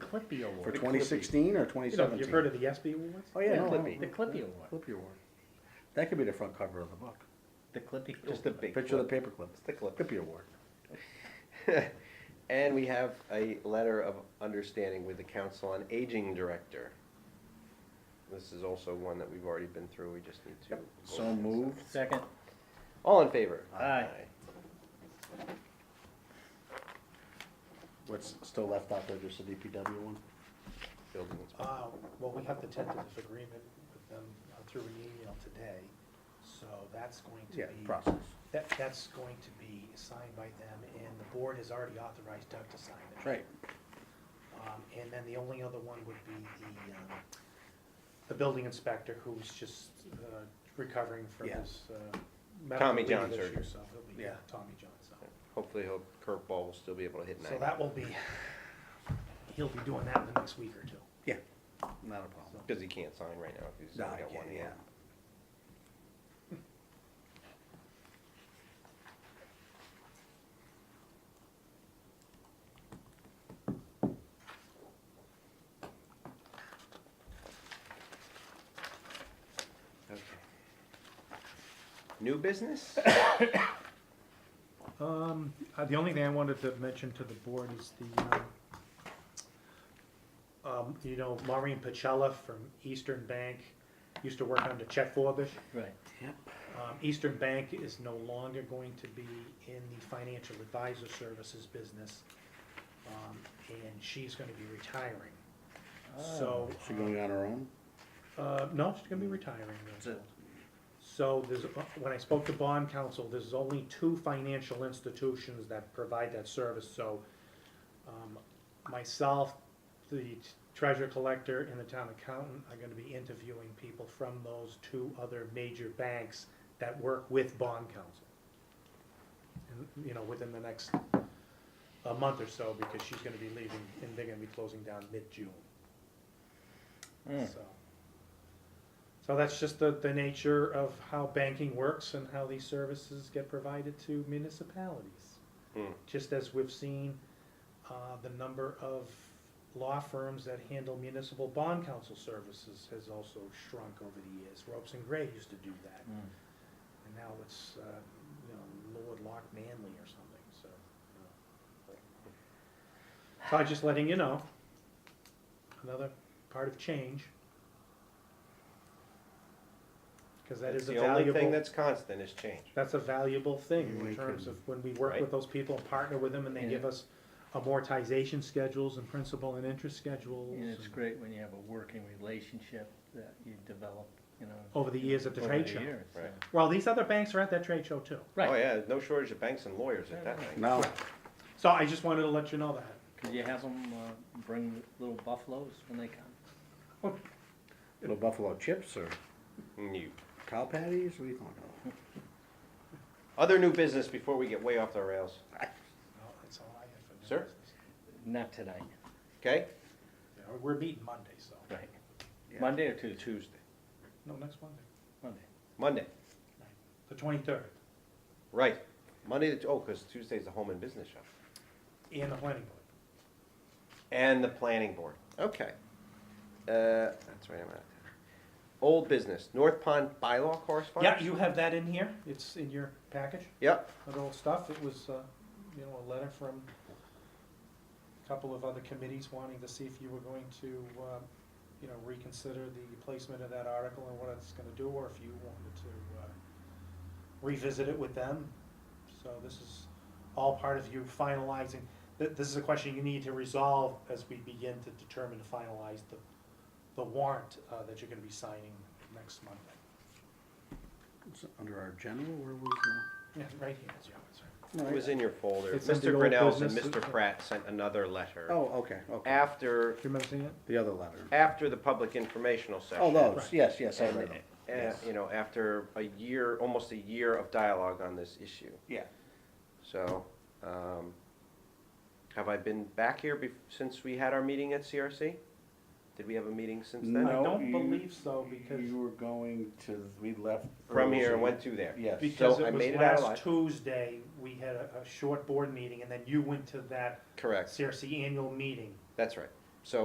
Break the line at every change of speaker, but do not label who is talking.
Clippy
For
Award.
Clippy.
twenty sixteen or twenty
You know,
seventeen?
you've heard of the ESPY awards?
Oh, yeah.
The
no, no,
Clippy.
no,
The Clippy
yeah,
Award.
Clippy Award. That could be the front cover of the book.
The Clippy.
Just a
Award.
big
Picture of the
clip.
paperclip.
It's the clip.
Clippy Award.
And we have a letter of understanding with the Council on Aging Director. This is also one that we've already been through, we just need to.
So moved.
Second,
All in favor?
Aye.
What's still left out there, just the DPW one?
Building inspector.
Uh, well, we have the tentative agreement with them uh, through an email today, so that's going to be.
Yeah, process.
That, that's going to be signed by them, and the board has already authorized Doug to sign it.
Right.
Um, and then the only other one would be the, um, the building inspector who's just, uh, recovering from
Yeah.
his, uh, medical
Tommy
leave
John
issue,
surgery.
So he'll be, yeah,
Yeah.
Tommy John, so.
Hopefully he'll, curveball will still be able to hit
So
ninety.
that will be, he'll be doing that in the next week or two.
Yeah, not a problem.
Because he can't sign right now, if he's
No,
only got one
yeah.
hand. Okay. New business?
Um, uh, the only thing I wanted to mention to the board is the, um, um, you know, Maureen Pacella from Eastern Bank used to work under Chet Forbish.
right.
Um, Eastern Bank is no longer going to be in the financial advisor services business. Um, and she's gonna be retiring. So.
She going on her own?
Uh, no, she's gonna be retiring.
So-
So there's, when I spoke to bond counsel, there's only two financial institutions that provide that service, so, um, myself, the treasure collector and the town accountant are gonna be interviewing people from those two other major banks that work with bond counsel. And, you know, within the next, a month or so, because she's gonna be leaving and they're gonna be closing down mid-June.
Mm.
So, so that's just the, the nature of how banking works and how these services get provided to municipalities.
Hmm.
Just as we've seen, uh, the number of law firms that handle municipal bond counsel services has also shrunk over the years. Ropes and Gray used to do that,
Mm.
and now it's, uh, you know, Lord Lock Manley or something, so. you know. So I'm just letting you know, another part of change. Cause that
That's
is a
the only thing
valuable,
that's constant is change.
that's a valuable thing
We
in terms
can-
of when we work
Right.
with those people and partner with them and they
Yeah.
give us amortization schedules and principal and interest schedules.
And it's
and-
great when you have a working relationship that you develop, you know.
Over the years at the
over
trade show.
years, so-
Right.
Well, these other banks are at that trade show too.
Oh,
Right,
yeah, no shortage of banks and lawyers at that thing.
No,
So I just wanted to let you know that.
because you have them bring little buffaloes when they come.
little buffalo chips or
New.
cow patties, what are you talking
Other new business before we get way off the rails,
about?
No, that's all I have for new
Sir?
business.
Not tonight,
okay?
Yeah, We're meeting Monday, so,
right.
Yeah.
Monday or Tuesday?
Tuesday,
no, next Monday,
Monday.
Monday,
the twenty-third,
right, Monday, the- oh, because Tuesday's the home and business show.
in the planning board.
And the planning board, okay. Uh, that's right, I'm out of town. Old business, North Pond bylaw correspondence?
Yeah, you have that in here, it's in your package,
Yep,
that old stuff, it was, uh, you know, a letter from a couple of other committees wanting to see if you were going to, um, you know, reconsider the placement of that article and what it's gonna do, or if you wanted to, uh, revisit it with them, so this is all part of you finalizing, th- this is a question you need to resolve as we begin to determine to finalize the, the warrant, uh, that you're gonna be signing next Monday.
It's under our general, where was the?
Yeah, right here, it's yours, right?
it was in your folder,
It's in the
Mr.
old
Grinnell's and
business.
Mr. Pratt sent another letter.
Oh, okay, okay,
After,
Do you remember seeing it?
the other letter.
after the public informational session.
Oh, those,
Right.
yes, yes, I
And,
read them.
uh,
Yes.
You know, after a year, almost a year of dialogue on this issue.
Yeah.
So, um, have I been back here bef- since we had our meeting at CRC? Did we have a meeting since then?
I
No,
don't
you-
believe so, because-
You were going to, we left.
From here and
early.
went to there?
Yes.
Because
So I
it was
made it out alive.
last Tuesday, we had a, a short board meeting, and then you went to that
Correct,
CRC annual meeting.
that's right.